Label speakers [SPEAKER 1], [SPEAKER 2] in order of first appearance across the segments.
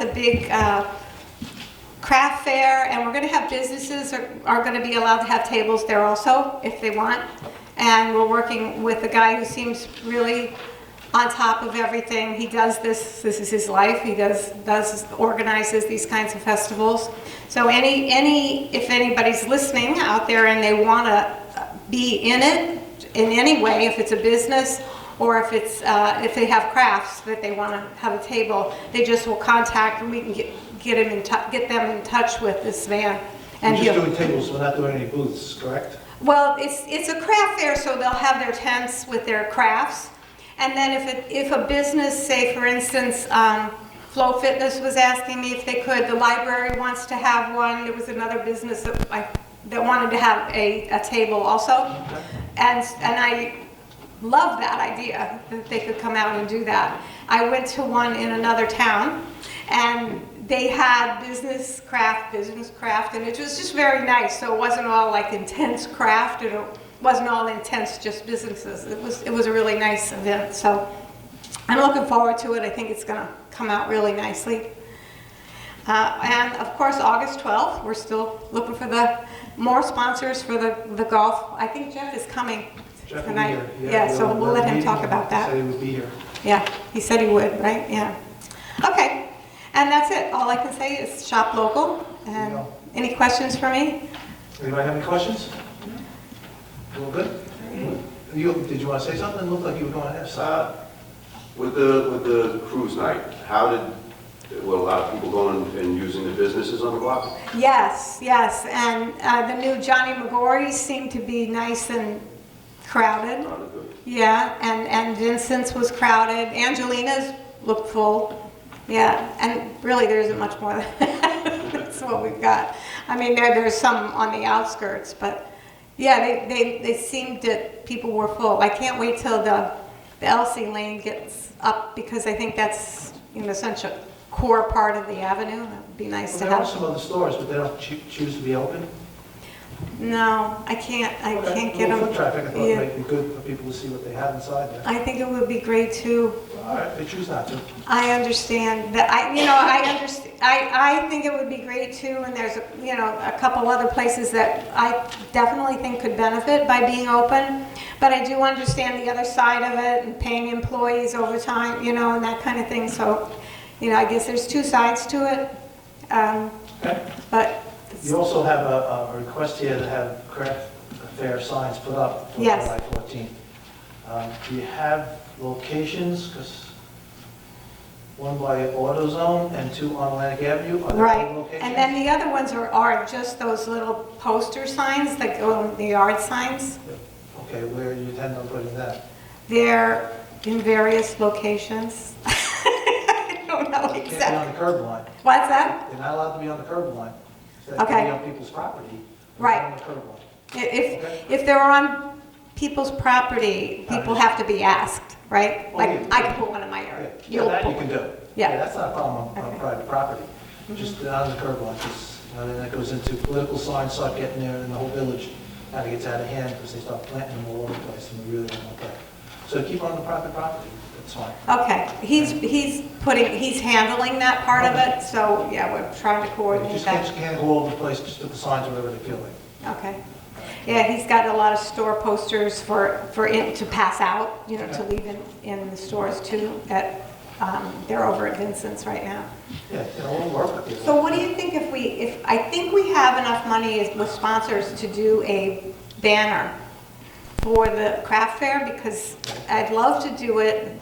[SPEAKER 1] It's a big uh, craft fair, and we're going to have businesses are- are going to be allowed to have tables there also, if they want. And we're working with a guy who seems really on top of everything. He does this, this is his life, he does, does, organizes these kinds of festivals. So any, any, if anybody's listening out there and they want to be in it in any way, if it's a business or if it's, uh, if they have crafts that they want to have a table, they just will contact and we can get, get him in tou- get them in touch with this man.
[SPEAKER 2] We're
[SPEAKER 1] And
[SPEAKER 2] just
[SPEAKER 1] he'll,
[SPEAKER 2] doing tables, we're not doing any booths, correct?
[SPEAKER 1] well, it's, it's a craft fair, so they'll have their tents with their crafts. And then if it, if a business, say for instance, um, Flow Fitness was asking me if they could, the library wants to have one. There was another business that I, that wanted to have a, a table also. And, and I love that idea that they could come out and do that. I went to one in another town and they had business craft, business craft, and it was just very nice. So it wasn't all like intense craft and it wasn't all intense just businesses. It was, it was a really nice event. So I'm looking forward to it. I think it's going to come out really nicely. Uh, And of course, August 12th, we're still looking for the, more sponsors for the, the golf. I think Jeff is coming
[SPEAKER 2] Jeff will be
[SPEAKER 1] tonight.
[SPEAKER 2] here.
[SPEAKER 1] Yeah, so we'll let him talk about
[SPEAKER 2] Said
[SPEAKER 1] that.
[SPEAKER 2] he would be here.
[SPEAKER 1] Yeah, he said he would, right? Yeah. Okay, and that's it. All I can say is shop local. And
[SPEAKER 2] Yeah.
[SPEAKER 1] any questions for me?
[SPEAKER 2] Anybody have any questions? A little bit? You, did you want to say something? It looked like you were going to have,
[SPEAKER 3] Uh, With the, with the cruise night, how did, were a lot of people going and using the businesses on the block?
[SPEAKER 1] Yes, yes, and uh, the new Johnny McGorry seemed to be nice and crowded.
[SPEAKER 3] Not a good-
[SPEAKER 1] Yeah, and, and Vincent's was crowded. Angelina's looked full. Yeah, and really, there isn't much more. That's what we've got. I mean, there, there's some on the outskirts, but yeah, they, they, they seemed that people were full. I can't wait till the, the Elsie Lane gets up because I think that's, you know, such a core part of the avenue. That would be nice
[SPEAKER 2] Well,
[SPEAKER 1] to
[SPEAKER 2] there are
[SPEAKER 1] have.
[SPEAKER 2] some other stores, but they don't choo- choose to be open.
[SPEAKER 1] No, I can't, I
[SPEAKER 2] Okay.
[SPEAKER 1] can't get
[SPEAKER 2] Well,
[SPEAKER 1] them.
[SPEAKER 2] Foot traffic, I thought
[SPEAKER 1] Yeah.
[SPEAKER 2] might be good for people to see what they have inside there.
[SPEAKER 1] I think it would be great too.
[SPEAKER 2] All right, they choose not to.
[SPEAKER 1] I understand that, I, you know, I understand, I, I think it would be great too, and there's, a you know, a couple other places that I definitely think could benefit by being open, but I do understand the other side of it and paying employees overtime, you know, and that kind of thing, so, you know, I guess there's two sides to it, um,
[SPEAKER 2] Okay.
[SPEAKER 1] but,
[SPEAKER 2] You also have a, a request here to have correct fair signs put up for
[SPEAKER 1] Yes.
[SPEAKER 2] July 14th. Um, Do you have locations, because one by AutoZone and two on Atlantic Avenue? are there
[SPEAKER 1] right.
[SPEAKER 2] any locations?
[SPEAKER 1] And then the other ones are, are just those little poster signs that go, the yard signs,
[SPEAKER 2] Okay, where do you intend on putting that?
[SPEAKER 1] they're in various locations. I don't know
[SPEAKER 2] They can't be
[SPEAKER 1] Oh, exactly.
[SPEAKER 2] on the curb line.
[SPEAKER 1] What's that?
[SPEAKER 2] They're not allowed to be on the curb line. They have to
[SPEAKER 1] Okay.
[SPEAKER 2] be on people's property. but
[SPEAKER 1] Right.
[SPEAKER 2] not On the curb line.
[SPEAKER 1] If, if they're on people's property, people have to be asked, right? Like, I can put one in my
[SPEAKER 2] Yeah,
[SPEAKER 1] yard.
[SPEAKER 2] Oh, Yeah,
[SPEAKER 1] You'll
[SPEAKER 2] that you
[SPEAKER 1] put-
[SPEAKER 2] can do.
[SPEAKER 1] Yeah.
[SPEAKER 2] That's not a problem on- on
[SPEAKER 1] Okay. Mm-hmm.
[SPEAKER 2] private property, just not on the curb line, because then that goes into political signs start getting there in the whole village, kind of gets out of hand because they start planting them all over the place, and we really don't want that. So keep on the private property, that's fine.
[SPEAKER 1] Okay, he's, he's putting, he's handling that part of it, so, yeah, we're trying to
[SPEAKER 2] You
[SPEAKER 1] coordinate
[SPEAKER 2] just can't,
[SPEAKER 1] that.
[SPEAKER 2] just can't go all over the place, just put the signs wherever they feel like.
[SPEAKER 1] Okay. Yeah, he's got a lot of store posters for, for it to pass out, you know, to leave in, in the stores too, at, um, they're over at Vincent's right now.
[SPEAKER 2] Yeah, you know, we'll work with you.
[SPEAKER 1] So what do you think if we, if, I think we have enough money as- with sponsors to do a banner for the craft fair, because I'd love to do it,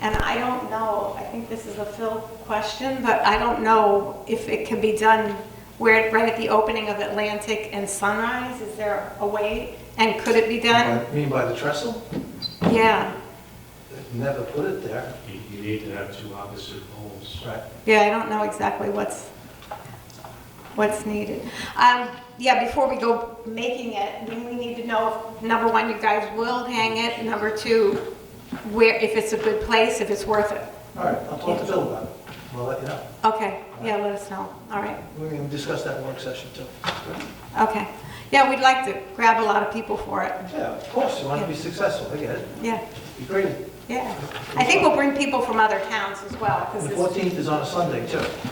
[SPEAKER 1] and I don't know, I think this is a Phil question, but I don't know if it can be done where, right at the opening of Atlantic and Sunrise, is there a way, and could it be done?
[SPEAKER 2] You mean by the trestle?
[SPEAKER 1] Yeah,
[SPEAKER 2] They've Never put it there.
[SPEAKER 4] You you need to have two opposite poles.
[SPEAKER 2] Right.
[SPEAKER 1] yeah, I don't know exactly what's, what's needed. Um, yeah, before we go making it, we we need to know, number one, you guys will hang it, number two, where, if it's a good place, if it's worth it.
[SPEAKER 2] All right, I'll talk to Phil about it. We'll let you know.
[SPEAKER 1] Okay, yeah, let us know, all right,
[SPEAKER 2] We can discuss that in work session too.
[SPEAKER 1] okay. Yeah, we'd like to grab a lot of people for it,
[SPEAKER 2] Yeah, of course, you want to be successful, I get it.
[SPEAKER 1] yeah,
[SPEAKER 2] Be great.
[SPEAKER 1] Yeah. I think we'll bring people from other towns as well, because
[SPEAKER 2] The
[SPEAKER 1] this
[SPEAKER 2] 14th is on a Sunday, too.